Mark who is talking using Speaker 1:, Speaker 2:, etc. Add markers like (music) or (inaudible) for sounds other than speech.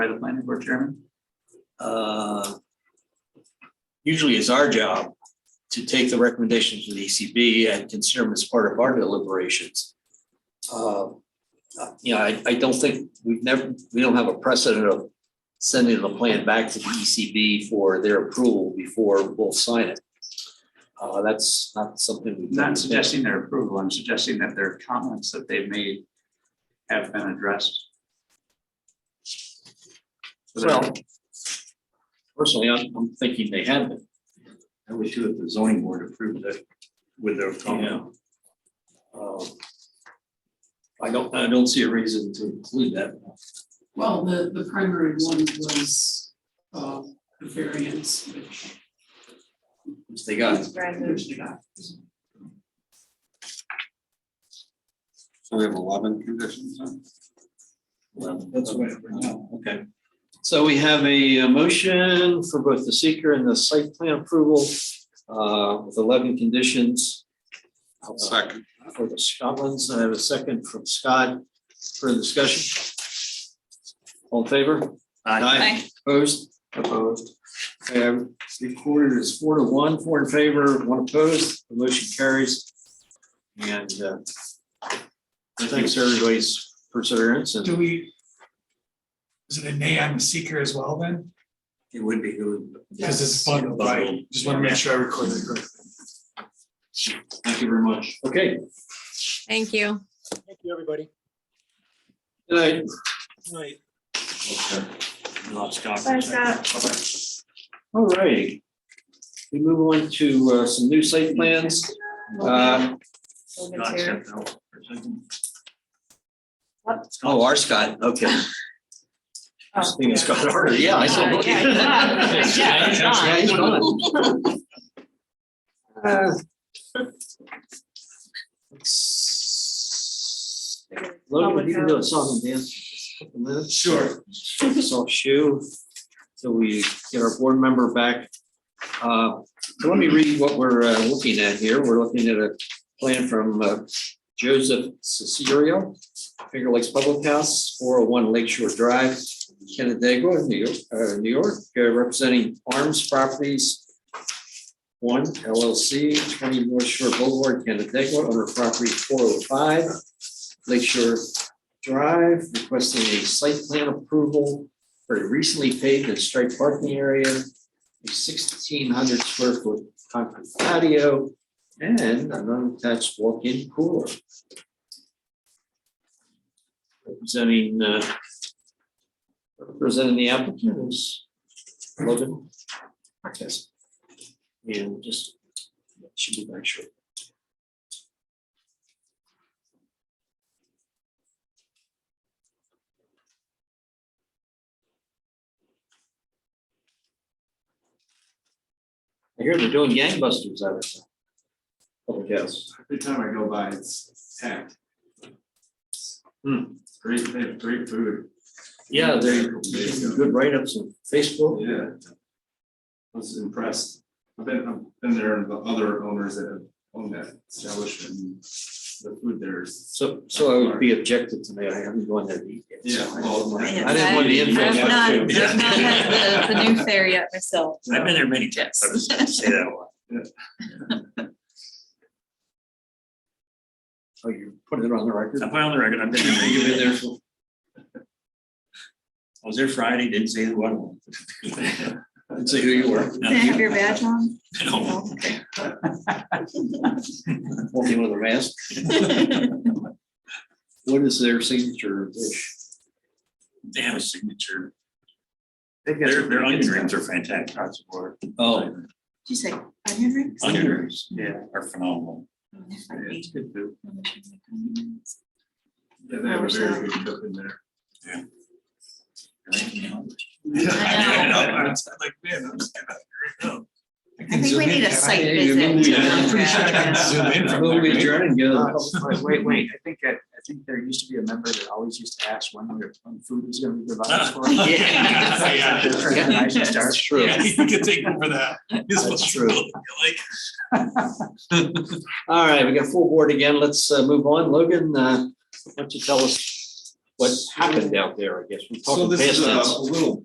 Speaker 1: by the planning board chairman?
Speaker 2: uh, usually it's our job to take the recommendations of the ECB and consider them as part of our deliberations. Uh, uh, You know, I, I don't think, we've never, we don't have a precedent of sending the plan back to the ECB for their approval before we'll sign it. Uh, That's not something we've done.
Speaker 1: Not suggesting their approval, I'm suggesting that their comments that they've made have been addressed. So that-
Speaker 2: Well, personally, I'm, I'm thinking they have been.
Speaker 3: I would too if the zoning board approved it with their comment.
Speaker 2: Uh, I don't, I don't see a reason to include that.
Speaker 4: Well, the, the primary one was, uh, the variance, which,
Speaker 2: which they got.
Speaker 4: which they got.
Speaker 3: So we have eleven conditions then?
Speaker 2: That's right. Okay. So we have a uh, motion for both the seeker and the site plan approval uh, with eleven conditions. uh,
Speaker 3: Second.
Speaker 2: For the Scotland's, I have a second from Scott for discussion. All in favor?
Speaker 5: Aye.
Speaker 2: Opposed? Opposed. Um, Okay, recorded as four to one, four in favor, one opposed, the motion carries. And uh, thanks everybody's perseverance and.
Speaker 6: Do we? Is it a nay on the seeker as well then?
Speaker 3: It would be good.
Speaker 6: Because it's bundled, right? Just want to make sure I recorded it correctly.
Speaker 2: Thank you very much. Okay.
Speaker 5: Thank you.
Speaker 7: Thank you, everybody.
Speaker 2: Good night.
Speaker 7: Good night.
Speaker 3: Love Scott.
Speaker 8: Bye, Scott.
Speaker 2: All right. We move on to uh, some new site plans. Uh,
Speaker 8: Logan's here.
Speaker 2: Oh, our Scott, okay. I was thinking Scott Harder, yeah, I saw.
Speaker 5: Uh, yeah, he's on. Yeah, he's on.
Speaker 2: Yeah, he's on. Uh, let's- Logan, if you can do a song and dance. for a couple minutes.
Speaker 6: Sure.
Speaker 2: soft shoe. So we get our board member back. Uh, So let me read what we're uh, looking at here. We're looking at a plan from uh, Joseph Cicero, Finger Lakes Public House, four oh one Lakeshore Drive, Kennedago, New York, uh, New York, uh, representing Arms Properties. One LLC, twenty North Shore Boulevard, Kennedago, owner property four oh five Lakeshore Drive, requesting a site plan approval for a recently paved and striped parking area, a sixteen hundred square foot concrete patio, and an unattached walk-in cooler. Representing, uh, representing the applicant is Logan. Yes. And just, should be very short. I hear they're doing gangbusters out of it. Oh, yes.
Speaker 3: Every time I go by, it's packed.
Speaker 2: Hmm.
Speaker 3: Great, they have great food.
Speaker 2: Yeah, they're good write-ups on Facebook.
Speaker 3: Yeah. I was impressed. I've been, I've been there and the other owners that have owned that establishment. and The food there is.
Speaker 2: So, so I would be objective to that. I haven't gone there to eat yet. so
Speaker 3: Yeah,
Speaker 2: I
Speaker 3: well,
Speaker 2: don't know.
Speaker 3: I-
Speaker 2: I didn't want the
Speaker 3: I-
Speaker 2: info.
Speaker 5: I've
Speaker 3: Yeah.
Speaker 5: not,
Speaker 3: Yeah.
Speaker 5: I've not had the, the new fair yet myself.
Speaker 3: I've been
Speaker 5: there many times.
Speaker 2: Oh, you put it on the record?
Speaker 3: put on the record, I've been
Speaker 2: You've been there for-
Speaker 3: I was there Friday, didn't say the one.
Speaker 2: I'd say who you were.
Speaker 5: Did I have your badge on? No. (laughs)
Speaker 2: Walking with a mask. What is their signature dish?
Speaker 3: They have a signature.
Speaker 1: They've got-
Speaker 3: Their, their onion rings are fantastic.
Speaker 2: Oh,
Speaker 5: Did you say onion rings?
Speaker 3: Onion rings
Speaker 1: Yeah.
Speaker 3: are phenomenal.
Speaker 5: Oh, that might be-
Speaker 1: good food.
Speaker 3: Yeah,
Speaker 5: they have a very
Speaker 3: good cook in there. Yeah.
Speaker 5: I
Speaker 3: (laughs)
Speaker 5: know. I think we need a
Speaker 3: (laughs)
Speaker 5: site
Speaker 2: Hey, you remember we-
Speaker 5: visit. to Montreal.
Speaker 3: Zoom in from
Speaker 2: Well, we
Speaker 3: there,
Speaker 2: adjourn and go.
Speaker 1: Oh, Wait, Wait, wait, I think, I I think there used to be a member that always used to ask when we were, when food was gonna be provided
Speaker 2: (laughs)
Speaker 1: for.
Speaker 3: (laughs)
Speaker 5: Yeah.
Speaker 6: Yeah.
Speaker 1: Recognize and start.
Speaker 2: That's true.
Speaker 6: You can take over that.
Speaker 2: That's true. All right, we got full board again. Let's uh, move on. Logan, uh, why don't you tell us what happened out there, I guess. We
Speaker 1: So
Speaker 2: talked
Speaker 1: this is
Speaker 2: past
Speaker 1: a
Speaker 2: tense.
Speaker 1: a little